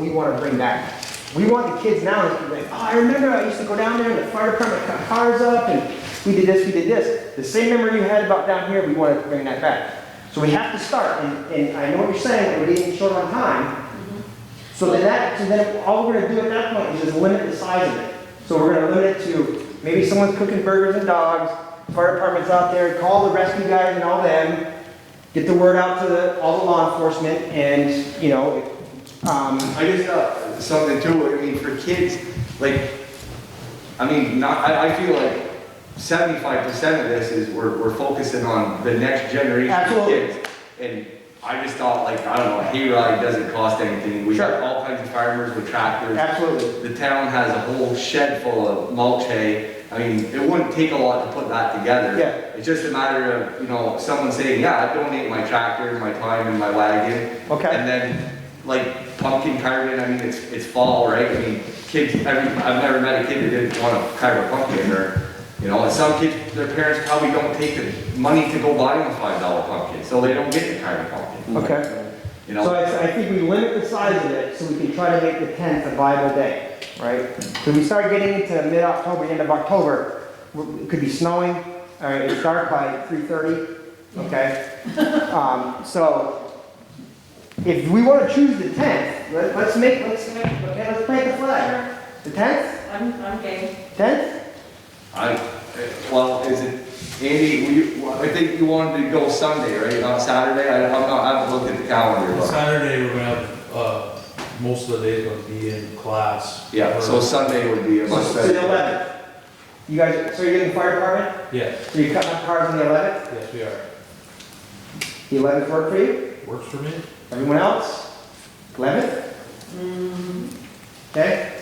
we want to bring back. We want the kids now to be like, oh, I remember I used to go down there and the fire department cut cars up and we did this, we did this. The same memory you had about down here, we want to bring that back. So we have to start, and, and I know what you're saying, we're getting short on time. So then that, so then all we're gonna do at that point is just limit the size of it. So we're gonna limit it to, maybe someone's cooking burgers and dogs, fire department's out there, call the rescue guys and all them, get the word out to the, all the law enforcement, and, you know, um, I guess uh, something too, I mean, for kids, like, I mean, not, I, I feel like seventy-five percent of this is we're, we're focusing on the next generation of Absolutely. kids. And I just thought like, I don't know, a hayride doesn't cost anything. We Sure. have all kinds of farmers with tractors. absolutely. The town has a whole shed full of mulch hay. I mean, it wouldn't take a lot to put that together. Yeah. It's just a matter of, you know, someone saying, yeah, I donate my tractor, my time, and my wagon. Okay. And then, like, pumpkin carving, I mean, it's, it's fall, right? I mean, kids, every, I've never met a kid that didn't want to carve a pumpkin, or, you know, and some kids, their parents probably don't take the money to go buy them a five dollar pumpkin, so they don't get to carve a pumpkin, Okay. you know? So I, I think we limit the size of it so we can try to make the tenth a viable day, right? So we start getting into mid-October, end of October, w- it could be snowing, all right, it's dark by three thirty, okay? Um, so if we wanna choose the tenth, let, let's make, let's make, okay, let's plant the flag. The tenth, I'm, I'm gay. tenth? I, well, is it, Andy, we, I think you wanted to go Sunday, right, not Saturday? I, I'm not, I haven't looked at the calendar, but, Saturday, we're gonna have, uh, most of the day gonna be in class. yeah, so Sunday would be a much So the better. eleventh. You guys, so you're getting the fire department, Yeah, so you're cutting up cars on the eleventh? yes, we are. The eleventh work for you? Works for me. Everyone else? Eleventh? Okay,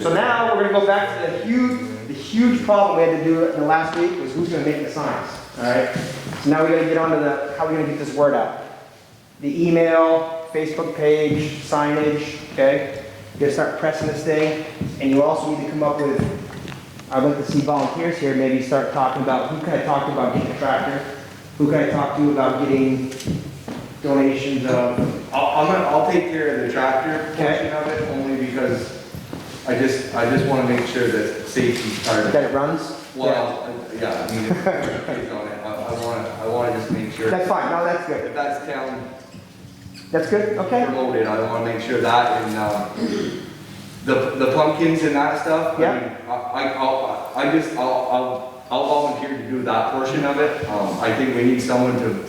so now we're gonna go back to the huge, the huge problem we had to do in the last week was who's gonna make the signs, alright? So now we gotta get on to the, how we gonna get this word out? The email, Facebook page, signage, okay? You gotta start pressing this thing, and you also need to come up with, I'd like to see volunteers here, maybe start talking about, who can I talk to about getting a tractor? Who can I talk to about getting donations of, I'll, I'm gonna, I'll take care of the tractor Okay. portion of it, only because I just, I just wanna make sure that safety's part of it. that it runs? Well, I- yeah, I mean, if it's on it, I, I wanna, I wanna just make sure, That's fine, no, that's good. if that's town That's good, okay? promoted, I wanna make sure that, and, um, the, the pumpkins and that stuff. I Yeah. mean, I, I, I'll- I just, I'll, I'll, I'll volunteer to do that portion of it, um, I think we need someone to,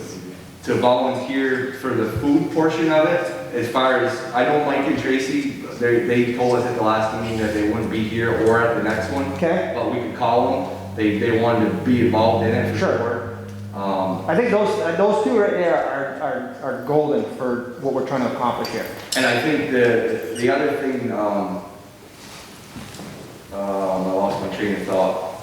to volunteer for the food portion of it, as far as, I know Mike and Tracy, they, they told us at the last meeting that they wouldn't be here or at the next one. Okay. But we could call them, they, they wanted to be involved in it for Sure. sure. Um, I think those, uh, those two right there are, are, are golden for what we're trying to accomplish here. And I think the, the other thing, um, um, I lost my train of thought.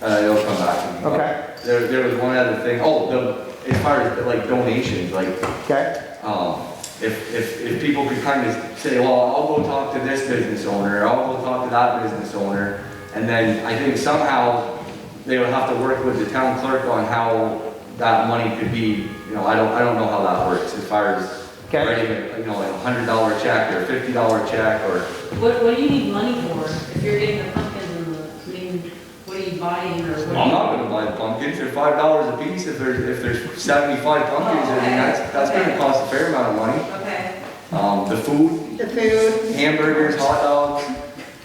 Uh, it'll come back to me. Okay. There, there was one other thing, oh, the, as far as like donations, like, Okay? um, if, if, if people could kind of say, well, I'll go talk to this business owner, I'll go talk to that business owner, and then I think somehow they would have to work with the town clerk on how that money could be, you know, I don't, I don't know how that works as far as Okay. writing, a, you know, like a hundred dollar check or fifty dollar check or, What, what do you need money for? If you're getting the pumpkin and the, I mean, what are you buying or I'm what? not gonna buy the pumpkins, they're five dollars a piece, if there's, if there's seventy-five pumpkins, I mean, that's, that's gonna cost a fair amount of money. Okay. Um, the food, The food, hamburgers, hot dogs,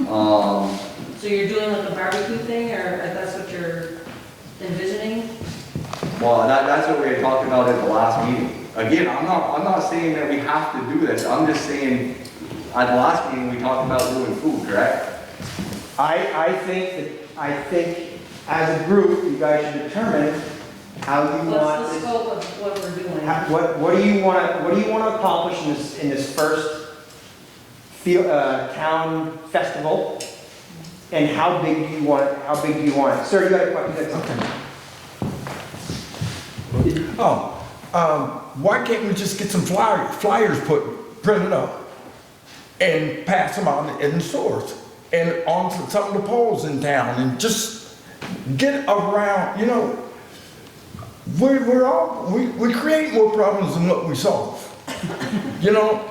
um, So you're doing like a barbecue thing or if that's what you're envisioning? Well, that, that's what we had talked about at the last meeting. Again, I'm not, I'm not saying that we have to do this, I'm just saying, at the last meeting, we talked about doing food, correct? I, I think that, I think as a group, you guys should determine how you want What's the this. scope of what we're doing? how- What, what do you wanna, what do you wanna accomplish in this, in this first field, uh, town festival? And how big do you want, it? how big do you want it? Sir, you got a question? You got something? Oh, um, why can't we just get some flyer, flyers put, printed up and pass them out in the stores and on to some of the poles in town and just get around, you know, we're, we're all, we, we create more problems than what we solve. You know,